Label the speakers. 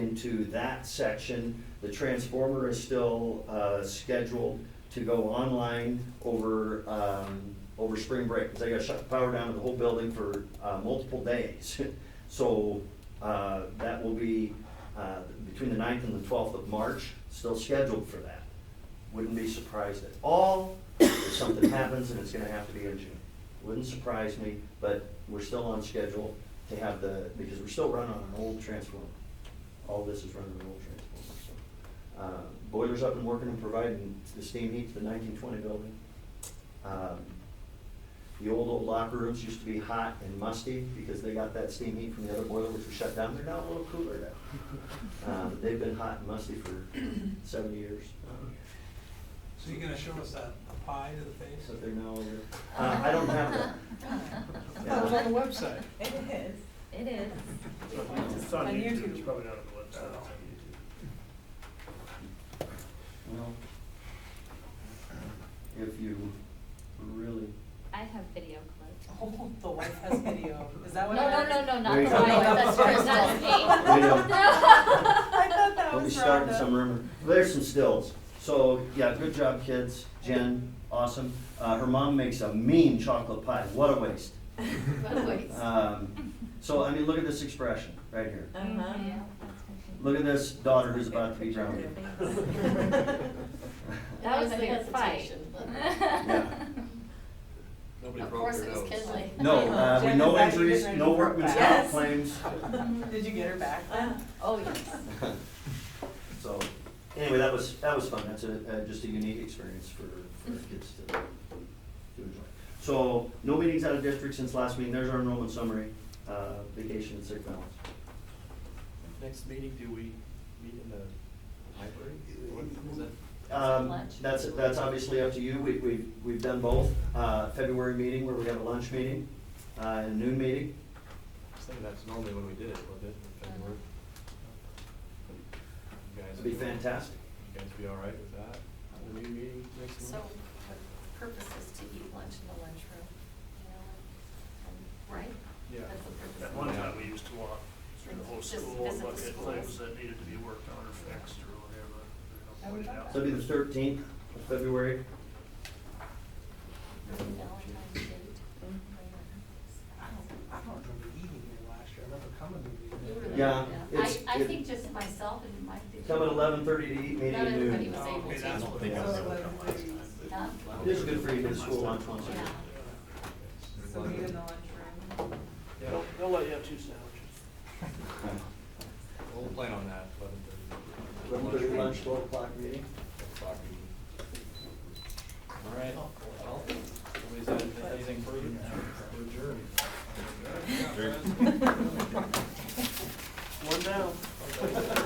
Speaker 1: into that section. The transformer is still uh, scheduled to go online over, um, over spring break. 'cause They gotta shut the power down to the whole building for uh, multiple days. So uh, that will be uh, between the 9th and the 12th of March, still scheduled for that. Wouldn't be surprised at all if something happens and it's gonna have to be in June. Wouldn't surprise me, but we're still on schedule to have the, because we're still running on an old transformer. All this is running on an old transformer, so. Uh, Boiler's up and working and providing the steam heat to the nineteen twenty building. Um, The old, old locker rooms used to be hot and musty because they got that steam heat from the other boiler which was shut down. They're now a little cooler now. Um, They've been hot and musty for seven years. Um,
Speaker 2: So you're gonna show us that pie to the face?
Speaker 1: So they're now over. Uh, I don't have that.
Speaker 2: That was on the website.
Speaker 3: It is.
Speaker 4: It is.
Speaker 5: It's on
Speaker 3: On
Speaker 5: YouTube,
Speaker 3: YouTube.
Speaker 5: it's probably not on the website, it's on YouTube.
Speaker 1: Oh. Well, if you really.
Speaker 4: I have video clips.
Speaker 3: Oh, the wife has video. Is that
Speaker 4: No,
Speaker 3: what?
Speaker 4: no,
Speaker 3: I-
Speaker 4: no, no, not
Speaker 1: There
Speaker 4: the
Speaker 1: you
Speaker 4: one,
Speaker 1: go.
Speaker 4: that's hers, not me.
Speaker 1: There you
Speaker 3: I thought that
Speaker 1: Don't be
Speaker 3: was
Speaker 1: starting
Speaker 3: Rhonda.
Speaker 1: some rumor. There's some stills. So, yeah, good job, kids. Jen, awesome. Uh, her mom makes a mean chocolate pie. What a waste.
Speaker 4: But wait.
Speaker 1: Um, so, I mean, look at this expression right here.
Speaker 3: Uh-huh.
Speaker 4: Yeah, that's okay.
Speaker 1: Look at this daughter who's about to be grounded.
Speaker 4: That was a
Speaker 6: That was the
Speaker 4: good fight.
Speaker 6: hesitation, but-
Speaker 4: Yeah.
Speaker 7: Nobody
Speaker 6: Of
Speaker 7: broke
Speaker 6: course
Speaker 7: their
Speaker 6: it was
Speaker 7: nose.
Speaker 6: Kinley.
Speaker 1: No, uh, with
Speaker 3: Jen, is
Speaker 1: no
Speaker 3: that you
Speaker 1: injuries,
Speaker 3: getting ready
Speaker 1: no
Speaker 3: for a
Speaker 1: workman's
Speaker 3: bath?
Speaker 1: comp claims.
Speaker 3: Did you get her back?
Speaker 6: Oh, yes.
Speaker 1: So, anyway, that was, that was fun, that's a, uh, just a unique experience for, for our kids to, to enjoy. So, no meetings out of district since last meeting, there's our enrollment summary, uh, vacation and sick balance.
Speaker 7: Next meeting, do we meet in the library? What is that?
Speaker 1: Um,
Speaker 4: Lunch.
Speaker 1: that's, that's obviously up to you, we, we, we've done both, uh, February meeting where we have a lunch meeting, uh, and noon meeting.
Speaker 7: I think that's normally when we did it, wasn't it, in February? You guys-
Speaker 1: It'd be fantastic.
Speaker 7: You guys be all right with that? The new meeting next month?
Speaker 6: So the purpose is to eat lunch in the lunchroom, you know, and- right?
Speaker 7: Yeah.
Speaker 6: That's the purpose.
Speaker 5: At one time, we used to walk through the whole
Speaker 6: Just
Speaker 5: school and
Speaker 6: visit
Speaker 5: look
Speaker 6: the
Speaker 5: at
Speaker 6: schools.
Speaker 5: things that needed to be worked on or fixed or whatever.
Speaker 3: I would love
Speaker 1: So it'd be the thirteenth of February,
Speaker 6: Valentine's date.
Speaker 2: I don't remember eating here last year, I remember coming
Speaker 6: You
Speaker 2: to
Speaker 6: were
Speaker 2: the
Speaker 6: there,
Speaker 2: meeting.
Speaker 1: Yeah, it's-
Speaker 6: I, I
Speaker 1: it-
Speaker 6: think just myself and my.
Speaker 1: come at eleven thirty to eat, meeting
Speaker 6: Not
Speaker 1: at
Speaker 6: everybody
Speaker 1: noon.
Speaker 6: was able
Speaker 2: Okay, that's what
Speaker 6: to.
Speaker 2: they
Speaker 3: So
Speaker 2: got.
Speaker 3: it was-
Speaker 6: Huh?
Speaker 1: It is good for you to school lunch once a
Speaker 6: Yeah.
Speaker 1: year.
Speaker 3: So meet in the lunchroom.
Speaker 5: They'll, they'll let you have two sandwiches.
Speaker 7: We'll plan on that, eleven thirty.
Speaker 1: Eleven thirty lunch, twelve o'clock meeting.
Speaker 7: O'clock meeting. All right, well, somebody's had anything further? We're adjourned.
Speaker 2: One down.